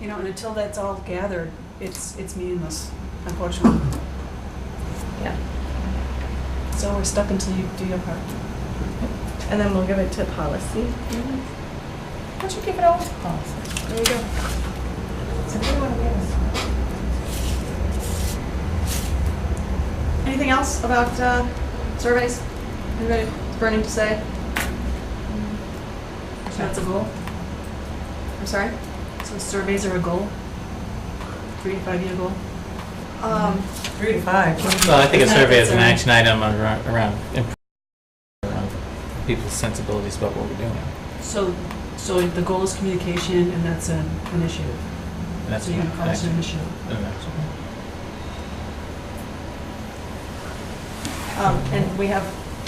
You know, and until that's all gathered, it's, it's meaningless, unfortunately. Yeah. So we're stuck until you do your part. And then we'll give it to policy. Why don't you give it all to policy? There you go. So who do you want to give us? Anything else about uh, surveys? Anybody burning to say? So That's a goal. I'm sorry? So surveys are a goal? Three to five year goal? Um, Three to five. Well, I think a Isn't that survey is an concerning? action item around, around imp- around people's sensibilities about what we're doing. So, so the goal is communication and that's an initiative. And that's So you're an gonna call it an action- initiative. an action. um, And we have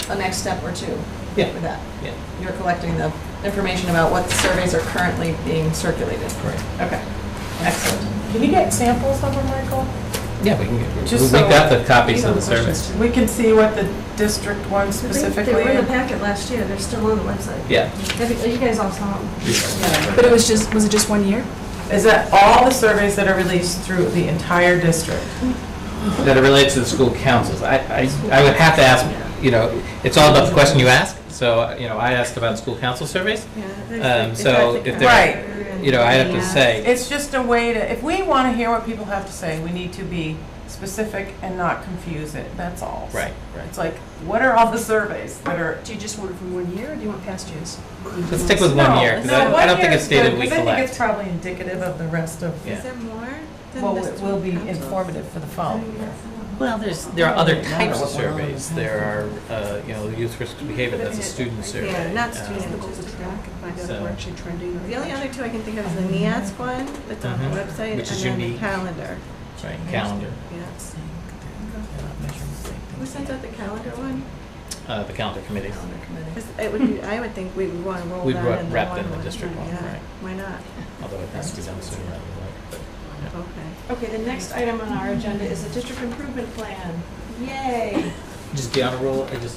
a next step or two Yeah. with that. Yeah, You're collecting the information about what surveys are currently being circulated. correct. Okay, excellent. Can you get samples of them, Michael? Yeah, we can, get- Just we'll make so- that the copies You of know, the questions survey. too. We can see what the district one specifically. They were in the packet last year, they're still on the website. Yeah. Have you- You guys all saw them. But it was just, was it just one year? Is that all the surveys that are released through the entire district? That it relates to the school councils. I, I, I would have to ask, you know, it's all about the question you ask. So, you know, I asked about school council surveys. Um, so if there- You know, I have to say, It's just a way to, if we want to hear what people have to say, we need to be specific and not confuse it, that's all. right, right. It's like, what are all the surveys that are? Do you just want it from one year or do you want past years? Let's stick with one No, year, because no, I I one don't think year it's is good, stated we 'cause I think collect. it's probably indicative of the rest of, Yeah. there more than well, just it will be one council? informative for the following year. Well, there's, there are other types of surveys. There are, uh, you know, youth risk behavior, that's a student survey. Yeah, not Um, student. The goal to track and find out if So- we're actually trending or. The only other two I can think of is the NEASC one, that's on the Mhm. website, and Which is then the unique. calendar. Right, calendar. Yeah. Who sent out the calendar one? Uh, the calendar committee. 'Cause It would be, I would think we would want to roll We'd that wrap- in the wrap one in the one. district one, Yeah, right. Why not? Although it has to be done sooner rather than Okay. Okay, the next item on our agenda is the district improvement plan. Yay! later. Just the honor roll, uh, just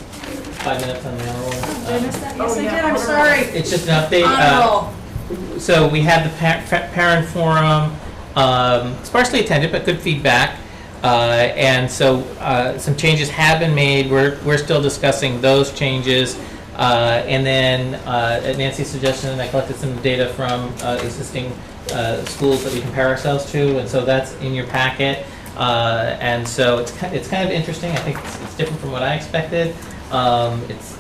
five minutes on the honor roll. Oh, Um, Did I miss that? Oh, Yes, I yeah. did, I'm sorry. It's just an update. Honor uh, roll. So we had the par- fa- parent forum, um, sparsely attended, but good feedback. Uh, And so uh, some changes have been made. We're, we're still discussing those changes. Uh, And then uh, at Nancy's suggestion, I collected some data from uh, existing uh, schools that we compare ourselves to, and so that's in your packet. Uh, And so it's, ki- it's kind of interesting. I think it's it's different from what I expected. Um, It's,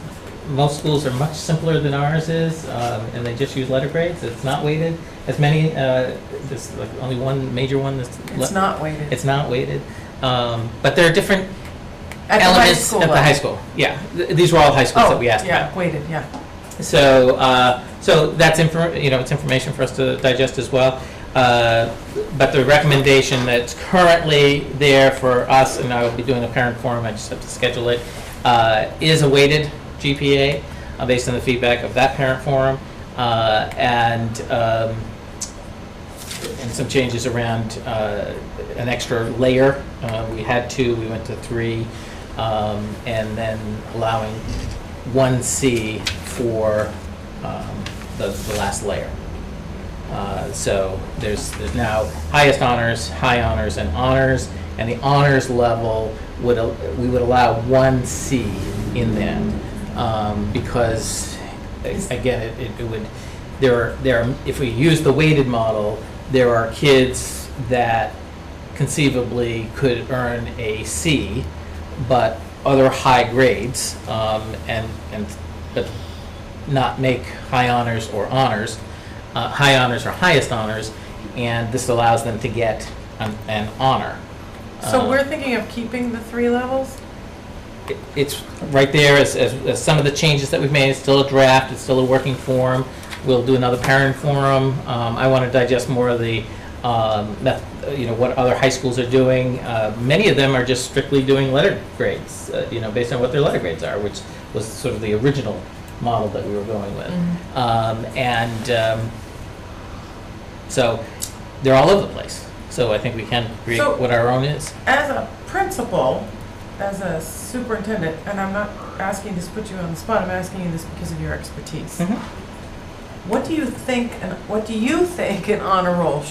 most schools are much simpler than ours is, um, and they just use letter grades. It's not weighted as many. Uh, there's like only one major one that's It's le- not weighted. It's not weighted, um, but there are different At the high elements school at the high level. school. Yeah, Th- these were all high schools that Oh, we asked yeah, weighted, yeah. about. So, uh, so that's infor- you know it's information for us to digest as well. Uh, but the recommendation that's currently there for us, and I will be doing a parent forum. I just have to schedule it. Uh, is a weighted GPA uh, based on the feedback of that parent forum, uh, and um, and some changes around uh, an extra layer. Uh, We had two, we went to three, um, and then allowing 1C for um, the the last layer. Uh, So there's, there's now highest honors, high honors, and honors, and the honors level would, al- we would allow 1C in that, um, because, again, it- it it would, there are, there are, if we use the weighted model, there are kids that conceivably could earn a C, but other high grades, um, and, and, but not make high honors or honors, uh, high honors or highest honors, and this allows them to get an, an honor. So Um, we're thinking of keeping the three levels? it- it's right there as, as, as some of the changes that we've made. It's still a draft, it's still a working form. We'll do another parent forum. Um, I want to digest more of the, um, meth- uh, you know, what other high schools are doing. Uh, many of them are just strictly doing letter grades, uh, you know, based on what their letter grades are, which was sort of the original model that we were going with. Um, and, um, so they're all over the place. So I think we can create So- what our own is. As a principal, as a superintendent, and I'm not asking this to put you on the spot, I'm asking you this because of your expertise. Mhm. What do you think, and what do you think an honor roll